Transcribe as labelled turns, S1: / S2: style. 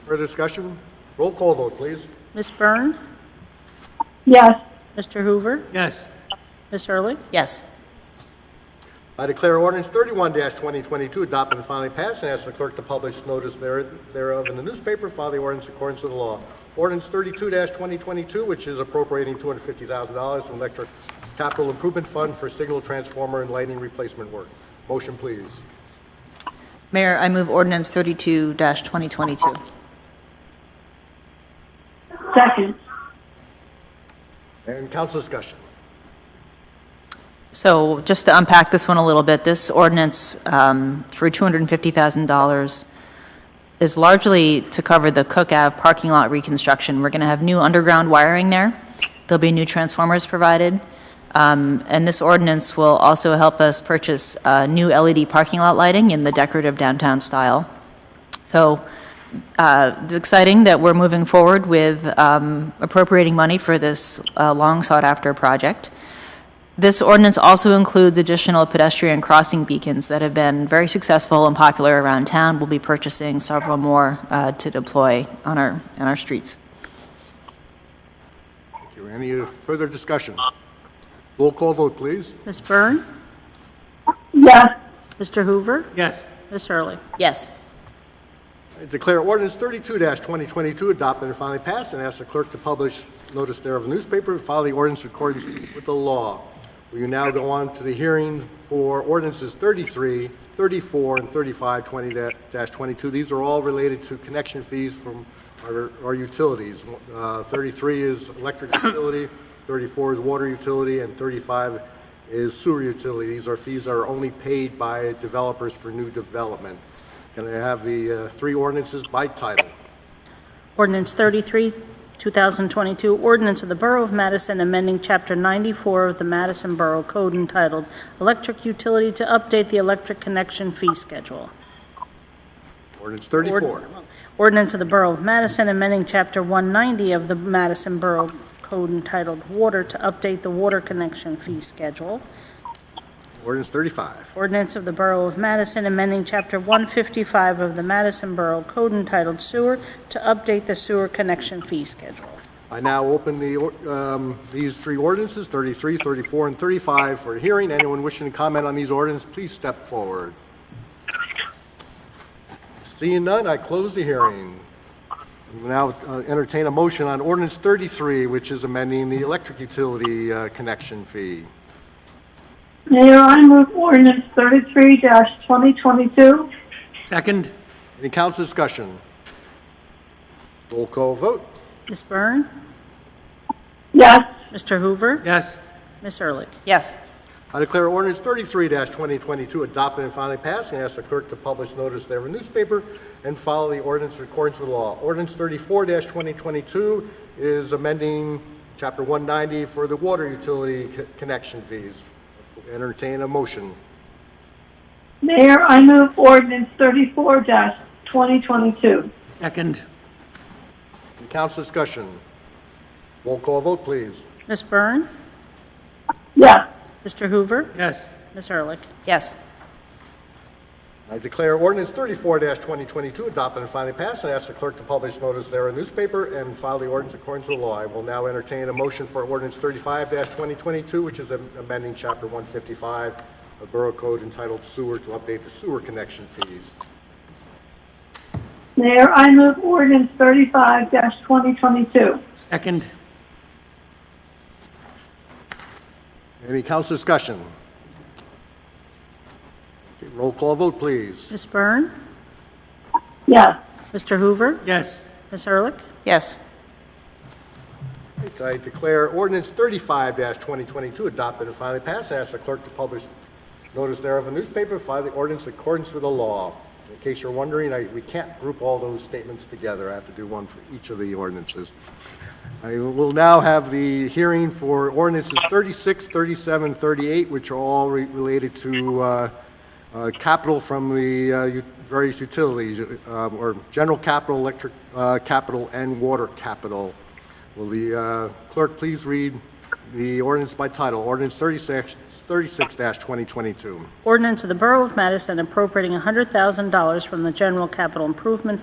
S1: Further discussion? Roll call vote, please.
S2: Ms. Byrne?
S3: yes,
S2: Mr. Hoover?
S4: yes,
S2: Ms. Ehrlich?
S5: yes,
S1: I declare ordinance thirty-one twenty twenty-two adopted and finally passed, and ask the clerk to publish notice there- thereof in the newspaper, file the ordinance in accordance with the law. Ordinance thirty-two twenty twenty-two, which is appropriating two hundred fifty thousand dollars from Electric Capital Improvement Fund for signal transformer and lighting replacement work. Motion, please.
S5: Mayor, I move ordinance 32-2022.
S3: second,
S1: And council discussion.
S5: So just to unpack this one a little bit, this ordinance um, for $250,000 is largely to cover the Cook Ave parking lot reconstruction. We're going to have new underground wiring there. There'll be new transformers provided. Um, And this ordinance will also help us purchase uh, new LED parking lot lighting in the decorative downtown style. So uh, it's exciting that we're moving forward with um, appropriating money for this uh, long-sought-after project. This ordinance also includes additional pedestrian crossing beacons that have been very successful and popular around town. We'll be purchasing several more uh, to deploy on our, on our streets.
S1: Thank you. Any further discussion? Roll call vote, please.
S2: Ms. Byrne?
S3: yes,
S2: Mr. Hoover?
S4: yes,
S2: Ms. Ehrlich?
S5: Yes.
S1: I Declare ordinance thirty-two twenty twenty-two adopted and finally passed, and ask the clerk to publish notice thereof in the newspaper and file the ordinance in accordance with the law. We now go on to the hearing for ordinances 33, 34, and thirty-five twenty twenty-two. These are all related to connection fees from our, our utilities. Uh, thirty-three is electric utility, thirty-four is water utility, and thirty-five is sewer utility. These are fees that are only paid by developers for new development. Can I have the uh, three ordinances by title?
S2: Ordinance 33, 2022, ordinance of the Borough of Madison amending Chapter 94 of the Madison Borough Code entitled Electric Utility to update the electric connection fee schedule.
S1: Ordinance 34.
S2: Ordinance of the Borough of Madison amending Chapter 190 of the Madison Borough Code entitled Water to update the water connection fee schedule.
S1: Ordinance 35.
S2: Ordinance of the Borough of Madison amending Chapter 155 of the Madison Borough Code entitled Sewer to update the sewer connection fee schedule.
S1: I now open the, or- um, these three ordinances, 33, 34, and 35, for a hearing. Anyone wishing to comment on these ordinances, please step forward. Seeing none, I close the hearing. We Now uh, entertain a motion on ordinance 33, which is amending the electric utility uh, connection fee.
S3: Mayor, I move ordinance thirty-three twenty twenty-two,
S4: second,
S1: Any council discussion? Roll call vote.
S2: Ms. Byrne?
S3: yes,
S2: Mr. Hoover?
S4: yes,
S2: Ms. Ehrlich?
S5: Yes.
S1: I declare ordinance thirty-three twenty twenty-two adopted and finally passed, and ask the clerk to publish notice thereof in the newspaper and follow the ordinance in accordance with the law. Ordinance thirty-four twenty twenty-two is amending chapter one ninety for the water utility co- connection fees. Entertain a motion.
S3: Mayor, I move ordinance thirty-four twenty twenty-two,
S4: second,
S1: Any Council discussion. Roll call vote, please.
S2: Ms. Byrne?
S3: yes,
S2: Mr. Hoover?
S4: yes,
S2: Ms. Ehrlich?
S5: Yes.
S1: I declare ordinance thirty-four twenty twenty-two adopted and finally passed, and ask the clerk to publish notice thereof in the newspaper and file the ordinance according to the law. I will now entertain a motion for ordinance thirty-five twenty twenty-two, which is amending chapter one fifty-five of Borough Code entitled Sewer to update the sewer connection fees.
S3: Mayor, I move ordinance thirty-five twenty twenty-two,
S4: second,
S1: Any council discussion? Okay, Roll call vote, please.
S2: Ms. Byrne?
S3: yes,
S2: Mr. Hoover?
S4: yes,
S2: Ms. Ehrlich?
S5: Yes.
S1: I declare ordinance thirty-five twenty twenty-two adopted and finally passed, and ask the clerk to publish notice thereof in the newspaper, file the ordinance in accordance with the law. In case you're wondering, I, we can't group all those statements together, I have to do one for each of the ordinances. I will now have the hearing for ordinances 36, 37, 38, which are all re- related to, uh, uh, capital from the, uh, u- various utilities, uh, or general capital, electric, uh, capital, and water capital. Will the uh, clerk please read the ordinance by title, ordinance 36 36-2022?
S2: Ordinance of the Borough of Madison appropriating $100,000 from the General Capital Improvement